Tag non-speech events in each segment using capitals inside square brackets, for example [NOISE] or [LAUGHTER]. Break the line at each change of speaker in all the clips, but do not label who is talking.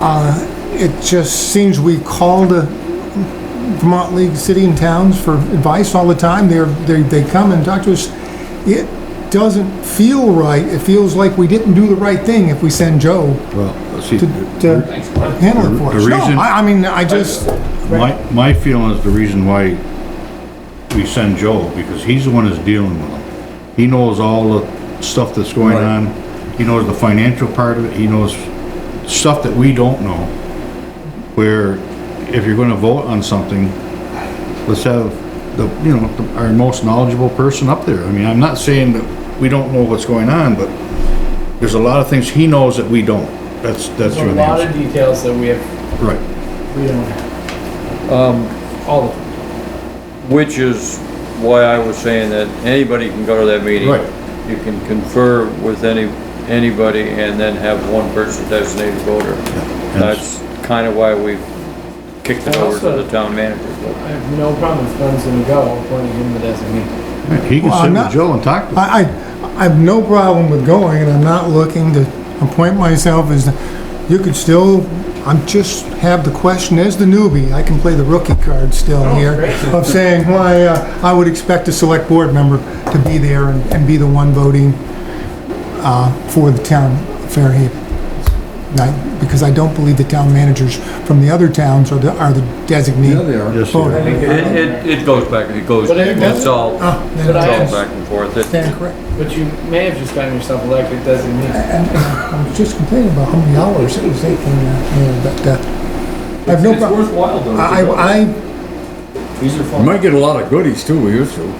Uh, It just seems we call the Vermont League City and Towns for advice all the time. They're, they, they come and talk to us. It doesn't feel right. It feels like we didn't do the right thing if we send Joe
Well, see,
to, to handle it for us.
The reason-
No, I, I mean, I just,
my, my feeling is the reason why we send Joe, because he's the one that's dealing with them. He knows all the stuff that's going
Right.
on, he knows the financial part of it, he knows stuff that we don't know. Where if you're gonna vote on something, let's have the, you know, the- our most knowledgeable person up there. I mean, I'm not saying that we don't know what's going on, but there's a lot of things he knows that we don't. That's, that's
There's a
really,
lot of details that we have,
right.
we don't have,
Um,
all of them.
which is why I was saying that anybody can go to that meeting.
Right.
You can confer with any, anybody and then have one person designated voter.
And-
That's kind of why we kicked it over to the town manager.
I have no problem with Glenn's gonna go, appointing him the designee.
Right, He can
Well,
sit
I'm
with
not-
Joe and talk to him.
I, I, I have no problem with going and I'm not looking to appoint myself as, the- you could still, I'm just have the question as the newbie, I can play the rookie card still here
great.
of saying why uh, I would expect a select board member to be there and, and be the one voting, uh, for the town of Fairhaven. Right, because I don't believe the town managers from the other towns are the, are the
Yeah, they
designee.
are.
Yes, sir.
Voter.
It, it, it goes back, it goes,
But it-
it's all, it's
Ah, then
But I
all
am-
it's
back and forth. It-
Stand correct.
But you may have just gotten yourself elected designee.
And I was just complaining about how many hours it was taking, uh, you know, but, uh, I have no
It's
problem.
worthwhile though. to
I,
go.
I, I-
These are
You
fun.
might get a lot of goodies too, we used to.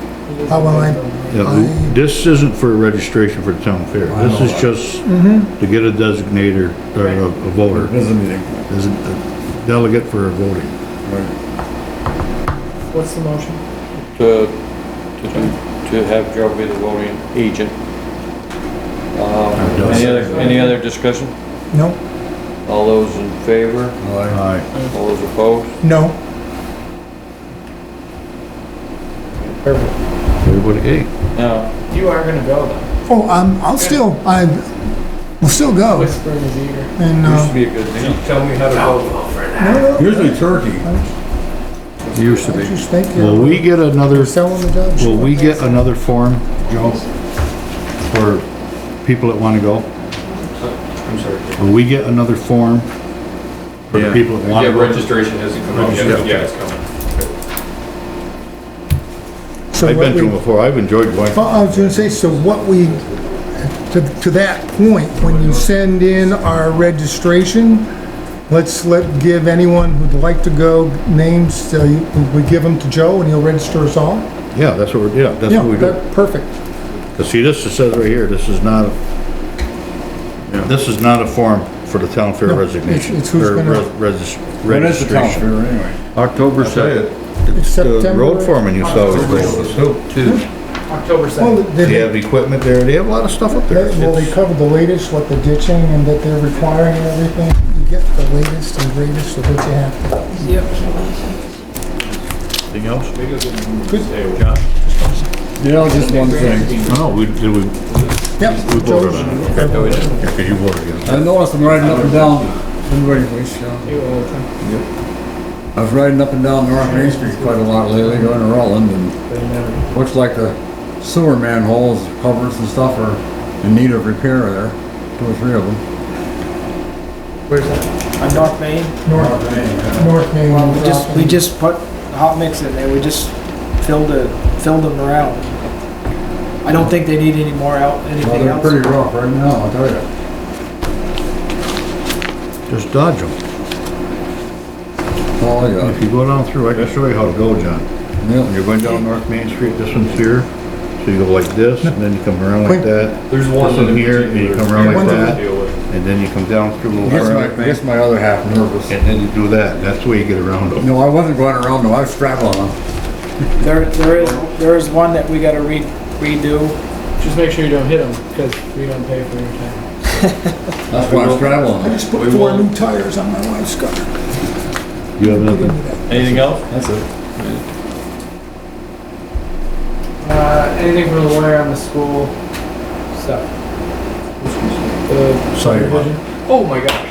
how will I,
Yeah, This isn't for registration for the town fair. This is just
Mm-hmm.
to get a designator or a a voter,
Business meeting.
as a delegate for voting.
Right.
What's the motion?
to, to do, to have Joe be the voting agent. Um, any other, any other discussion?
no,
All those in favor?
Aye.
All those opposed?
no,
Perfect.
Everybody, hey,
No.
You are gonna go though.
oh, um, I'll still, I, will still go,
Whisper in his ear.
and,
Used to
uh,
be a good thing. Tell me how to vote.
no, no,
Usually turkey.
Used to
I
be.
just think
will
you're
we get another,
selling the job.
will we get another form, Joe? For people that wanna go?
I'm sorry.
Will we get another form? For the
Yeah.
people that wanna
Yeah,
go? Oh,
registration hasn't come out yet, but yeah, it's coming.
So what
I've been to
we-
them before. I've enjoyed going.
Well, I was gonna say, so what we, to, to that point, when you send in our registration, let's let, give anyone who'd like to go names, so you- we give them to Joe and he'll register us all?
Yeah, that's what we're, yeah, that's
Yeah,
what we do.
that- perfect.
Cause see, this is says right here, this is not, this is not a form for the town fair
No,
resignation.
it's- it's who's
or
gonna-
res- regis-
When is the town
Registration.
fair anyway?
October second. It's the
September-
road foreman you saw was going with us too.
October
Well,
second.
They
they,
have equipment there, they have a lot of stuff up there.
they- well, they
It's-
cover the latest, what the ditching and that they're requiring and everything. You get the latest and greatest of what you have.
Anything else?
Yeah, just one thing.
No, we, did we,
Yep.
we voted on
Joe's-
it, okay. Okay, you voted against it.
I noticed I'm riding up and down, been waiting for this, yeah.
You uh, will, but
I was riding up and down North Main Street quite a lot lately, going to Rutland and
you never.
looks like the sewer manholes, covers and stuff are in need of repair there, two or three of them.
Where's that? On North Main?
North, North Main.
Well, we just, we just put hot mix in there, we just filled the, filled them around. I don't think they need any more out,
Well,
anything
they're
else.
pretty rough right now, I'll tell you.
Just dodge them.
Oh,
If
[LAUGHS] yeah.
you go down through, I can show you how to go, John. When
Yeah.
you're going down North Main Street, this one's here, so you go like this, and then you come around like
Wait.
that,
There's one.
This one
in
here, and you
particular
come around like
we're gonna
that.
deal with.
and then you come down through a little.
Gets
corner,
my, gets my other half nervous.
And then you do that, that's the way you get around them.
No, I wasn't going around them, I was straddling them.
There, there is, there is one that we gotta re- redo,
Just make sure you don't hit him, because we don't pay for your time.
That's why I was straddling
I
them.
just put four new tires on my wife's car.
You have nothing?
Anything else?
That's it.
Uh, anything from the lawyer on the school stuff? The
Sidewalk.
revision? Oh my god.